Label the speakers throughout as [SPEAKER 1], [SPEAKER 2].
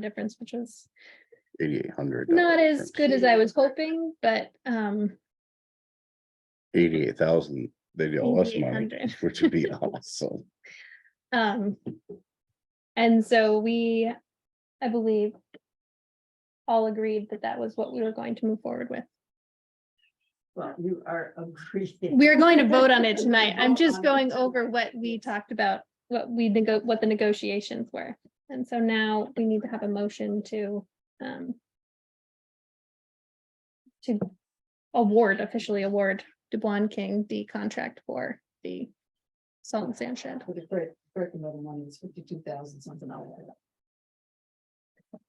[SPEAKER 1] difference, which was
[SPEAKER 2] eighty-eight hundred.
[SPEAKER 1] not as good as I was hoping, but um,
[SPEAKER 2] Eighty-eight thousand, they'd owe us money,
[SPEAKER 1] 88,000.
[SPEAKER 2] which would be awesome.
[SPEAKER 1] um. And so we, I believe. All agreed that that was what we were going to move forward with.
[SPEAKER 3] Well, you are agreeing.
[SPEAKER 1] We're going to vote on it tonight. I'm just
[SPEAKER 3] Vote on
[SPEAKER 1] going
[SPEAKER 3] it.
[SPEAKER 1] over what we talked about, what we nego, what the negotiations were. And so now we need to have a motion to um. To award, officially award DuBois King the contract for the salt and sand shed.
[SPEAKER 3] With the correct, correct amount of money, it's fifty-two thousand something. like that.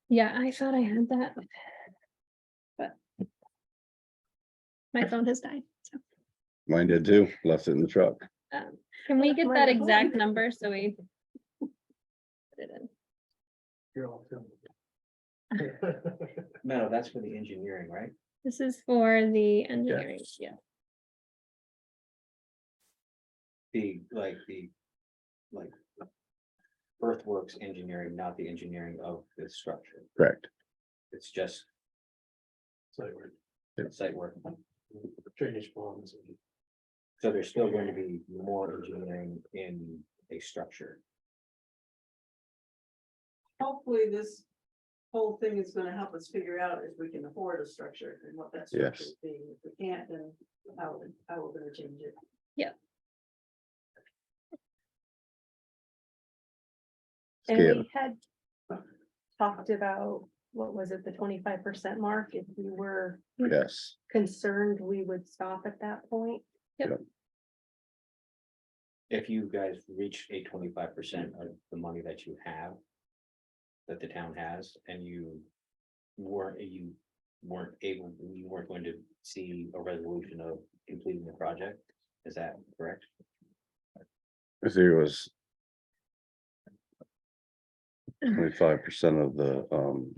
[SPEAKER 1] Yeah, I thought I had that. But. My phone has died, so,
[SPEAKER 2] Mine did too, left it in the truck.
[SPEAKER 1] um, can we get
[SPEAKER 3] Where
[SPEAKER 1] that
[SPEAKER 3] it
[SPEAKER 1] exact
[SPEAKER 3] went?
[SPEAKER 1] number so we? put it in?
[SPEAKER 4] You're all filming.
[SPEAKER 5] No, that's for the engineering, right?
[SPEAKER 1] This is for the engineering, yeah,
[SPEAKER 5] The, like, the, like. Earthworks engineering, not the engineering of the structure,
[SPEAKER 2] Correct.
[SPEAKER 5] it's just
[SPEAKER 4] So we're
[SPEAKER 5] site work,
[SPEAKER 4] drainage ponds. and-
[SPEAKER 5] so there's still going to be more engineering in a structure.
[SPEAKER 3] Hopefully, this whole thing is gonna help us figure out if we can afford a structure and what that structure
[SPEAKER 2] Yes.
[SPEAKER 3] would be. If we can't, then how, how we're gonna change it.
[SPEAKER 2] Scale.
[SPEAKER 6] And we had talked about, what was it, the twenty-five percent mark, if we were
[SPEAKER 2] Yes,
[SPEAKER 6] concerned, we would stop at that point.
[SPEAKER 5] If you guys reach a twenty-five percent of the money that you have. That the town has and you weren't, you weren't able, you weren't going to see a resolution of completing the project, is that correct?
[SPEAKER 2] if there was. Twenty-five percent of the, um,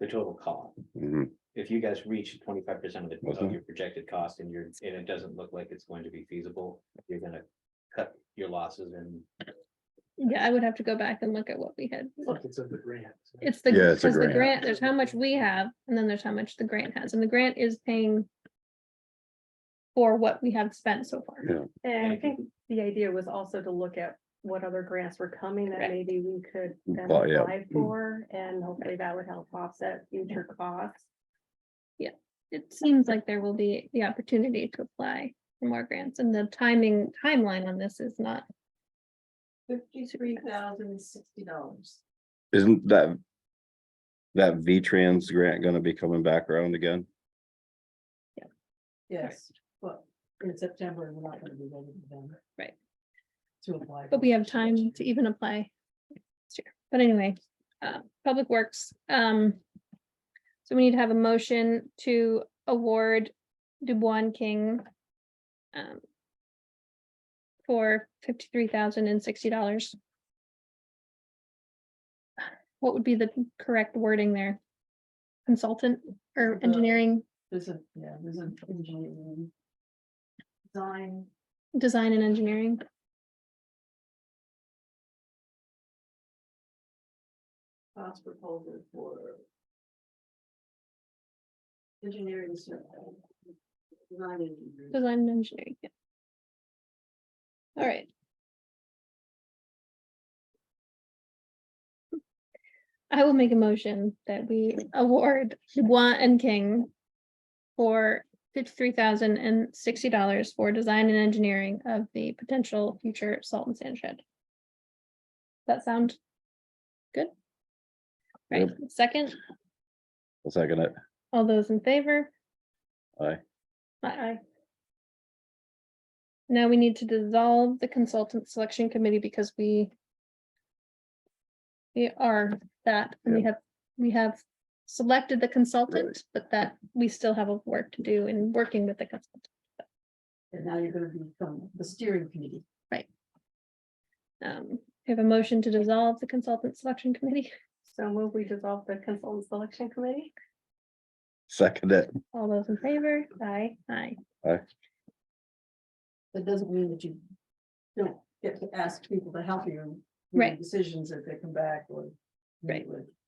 [SPEAKER 5] The total cost.
[SPEAKER 2] mhm,
[SPEAKER 5] if you guys reach twenty-five percent of the,
[SPEAKER 2] Mhm.
[SPEAKER 5] of your projected cost and you're, and it doesn't look like it's going to be feasible, you're gonna cut your losses and
[SPEAKER 1] yeah, I would have to go back and look at what we had.
[SPEAKER 4] Look, it's in the grant.
[SPEAKER 1] It's the,
[SPEAKER 2] Yeah, it's
[SPEAKER 1] because
[SPEAKER 2] a
[SPEAKER 1] the
[SPEAKER 2] grant.
[SPEAKER 1] grant, there's how much we have, and then there's how much the grant has, and the grant is paying. For what we have spent so far.
[SPEAKER 2] yeah,
[SPEAKER 6] And I
[SPEAKER 5] Thank
[SPEAKER 6] think the idea was also to look at what other grants were coming that
[SPEAKER 1] Correct.
[SPEAKER 6] maybe we could then
[SPEAKER 2] Apply, yeah.
[SPEAKER 6] apply
[SPEAKER 2] Mm.
[SPEAKER 6] for, and hopefully that would help offset future costs.
[SPEAKER 1] It seems like there will be the opportunity to apply for more grants, and the timing, timeline on this is not,
[SPEAKER 3] Fifty-three thousand sixty dollars.
[SPEAKER 2] isn't that? That V-Trans grant gonna be coming back around again?
[SPEAKER 3] Yes, but in September, we're not gonna be ready to them.
[SPEAKER 1] Right.
[SPEAKER 3] To apply.
[SPEAKER 1] but we have time to even apply. next year. But anyway, uh, Public Works, um. So we need to have a motion to award Dubois King. um, For fifty-three thousand and sixty dollars. What would be the correct wording there? Consultant or
[SPEAKER 3] The-
[SPEAKER 1] engineering,
[SPEAKER 3] There's a, yeah, there's an engineering. Design.
[SPEAKER 1] design and engineering?
[SPEAKER 3] cost proposal for engineering survey. Design engineering.
[SPEAKER 1] Design and engineering, yeah. All right. I will make a motion that we award Dubois and King for fifty-three thousand and sixty dollars for design and engineering of the potential future salt and sand shed. That sound good? Right, second,
[SPEAKER 2] I'll second it.
[SPEAKER 1] all those in favor?
[SPEAKER 2] Aye.
[SPEAKER 1] Aye. Now we need to dissolve the consultant selection committee because we. We are that, and we have, we have selected the consultant, but that we still have a work to do in working with the consultant.
[SPEAKER 3] And now you're gonna become the steering committee.
[SPEAKER 1] Um, we have a motion to dissolve the consultant selection committee.
[SPEAKER 6] So will we dissolve the consultant selection committee?
[SPEAKER 2] Second it.
[SPEAKER 1] All those in favor? Aye. Aye.
[SPEAKER 3] That doesn't mean that you don't get to ask people to help you. with
[SPEAKER 1] Right.
[SPEAKER 3] Decisions if they come back or. meet
[SPEAKER 1] Right.
[SPEAKER 3] with